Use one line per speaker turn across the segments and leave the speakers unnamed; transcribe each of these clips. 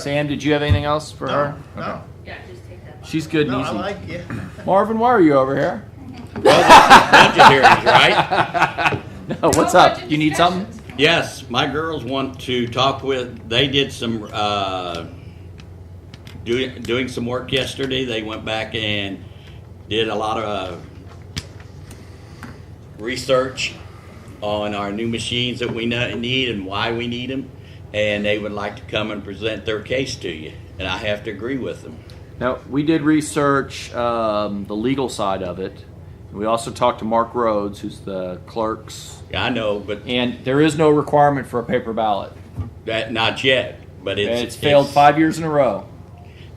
Sam, did you have anything else for
No,
her?
no,
Yeah, just take that.
She's good and
no,
easy.
I like, yeah.
Marvin, why are you over here?
budget hearings, right?
No, what's up? You need something?
Yes, my girls want to talk with, they did some, uh, doing, doing some work yesterday. They went back and did a lot of uh, research on our new machines that we know- need and why we need them. And they would like to come and present their case to you. And I have to agree with them.
No, we did research um, the legal side of it. We also talked to Mark Rhodes, who's the clerk's,
I know, but
and there is no requirement for a paper ballot.
that, not yet, but
And
it's.
It's, failed
it's-
five years in a row.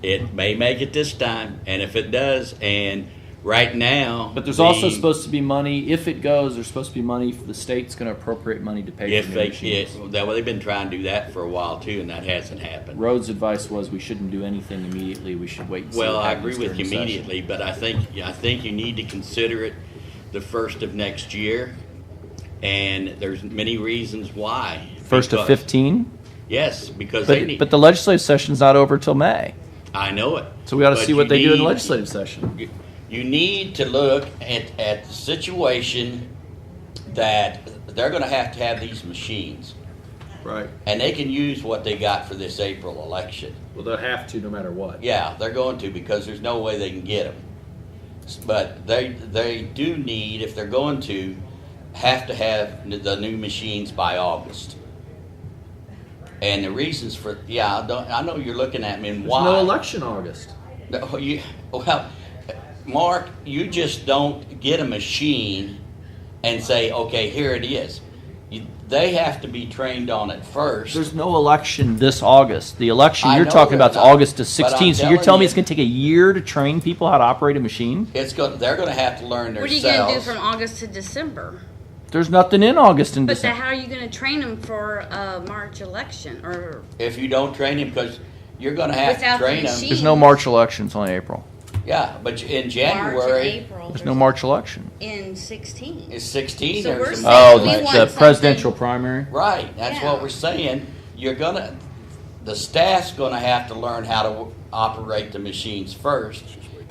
It may make it this time, and if it does, and right now,
But there's also
the-
supposed to be money. If it goes, there's supposed to be money. The state's going to appropriate money to pay for
if
new
they
machines.
it, that well, they've been trying to do that for a while too, and that hasn't happened.
Rhodes' advice was we shouldn't do anything immediately. We should wait. And see
Well,
what
I
happens
agree with
during
you
session.
immediately, but I think I think you need to consider it the first of next year, and there's many reasons why.
First of
Because-
fifteen,
Yes, because they
but
need.
but the legislative session's not over till May,
I know it.
so we ought to
But
see what
you
they do in the
need-
legislative session.
You- you need to look at, at the situation that they're going to have to have these machines,
Right.
and they can use what they got for this April election.
Well, they'll have to no matter what.
Yeah, they're going to because there's no way they can get them. But they they do need if they're going to have to have n- the new machines by August. And the reasons for yeah, I, don't, I know you're looking at me and why
August.
no, you, well, Mark, you just don't get a machine and say, okay, here it is. You, they have to be trained on it first.
There's no election this August. The election
I
you're
know
talking about is
there's not,
August to
but I'm
16. So you're
telling
telling me
you-
it's going to take a year to train people how to operate a machine?
it's going. They're going to have to learn
What are
themselves.
you gonna do from August to December?
There's nothing in August and
But then
December.
how are you gonna train them for a March election or?
if you don't train him, because you're going to have
Without
to
the
train
machine.
him.
There's no March elections on April.
Yeah, but you- in
March or
January
April.
There's no March election.
in sixteen.
is 16.
So
or
we're
something.
saying Oh, we want
the
something-
presidential primary.
Right, that's
Yeah.
what we're saying. You're gonna, the staff's gonna have to learn how to w- operate the machines first,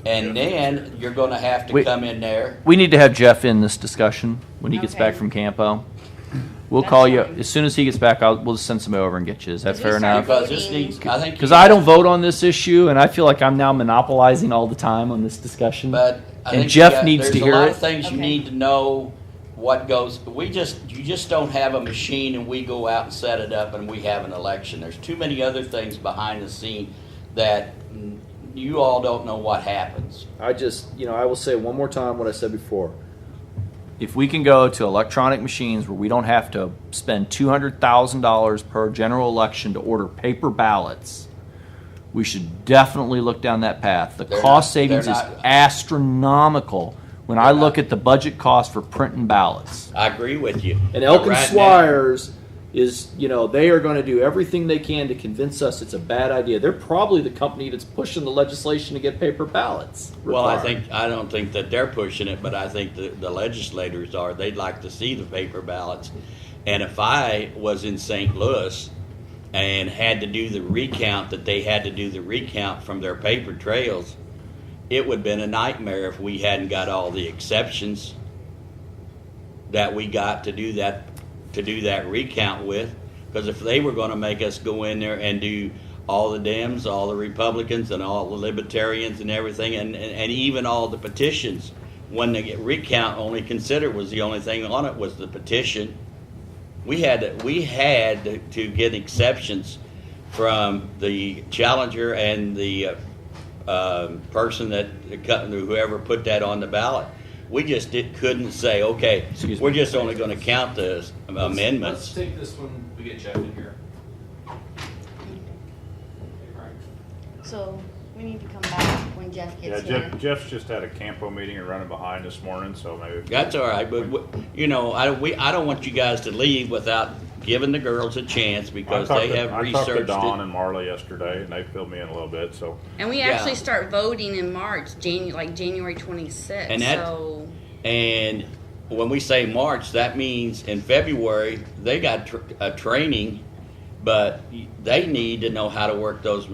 and then you're gonna have to
We-
come in there.
We need to have Jeff in this discussion when he gets
Okay.
back from Campo. We'll
That's
call you
fine.
as soon as he gets back. I'll, we'll just send somebody over and get you. Is that
Because
fair
we started
enough?
Because this
Voting.
needs, I think.
Because I don't vote on this issue, and I feel like I'm now monopolizing all the time on this discussion.
But I
and
think you
Jeff
got-
needs to
there's
hear
a lot
it.
of things you
Okay.
need to know what goes, we just, you just don't have a machine and we go out and set it up and we have an election. There's too many other things behind the scene that mm, you all don't know what happens.
I just, you know, I will say one more time what I said before. If we can go to electronic machines where we don't have to spend two hundred thousand dollars per general election to order paper ballots, we should definitely look down that path. The
They're
cost
not- they're
savings
not-
is astronomical when I
They're
look
not.
at the budget cost for printing ballots.
I agree with you.
And
But
Elkin
right now-
Swires is, you know, they are going to do everything they can to convince us it's a bad idea. They're probably the company that's pushing the legislation to get paper ballots.
Well, I
required.
think, I don't think that they're pushing it, but I think the, the legislators are, they'd like to see the paper ballots. And if I was in St. Louis and had to do the recount, that they had to do the recount from their paper trails, it would've been a nightmare if we hadn't got all the exceptions that we got to do that, to do that recount with. Because if they were gonna make us go in there and do all the Dems, all the Republicans, and all the Libertarians and everything, and, and, and even all the petitions, when the recount only considered was the only thing on it was the petition. We had, to- we had to- to get exceptions from the challenger and the uh, um, person that, whoever put that on the ballot. We just did, couldn't say, okay,
Excuse me.
we're just only gonna count the amendments.
take this when we get Jeff in here.
So we need to come back when Jeff
Yeah, Jeff, Jeff's just had a campo meeting and running behind this morning, so maybe.
That's all right, but, w- you know, I, we, I don't want you guys to leave without giving the girls a chance
I
because
talked
they
to-
have
I talked to
researched
Don
it.
and Marla yesterday, and they filled me in a little bit, so.
And we
Yeah.
actually start voting in March, Janu- like January twenty-sixth,
And that-
so.
And when we say March, that means in February, they got tr- a training But they need to know how to work those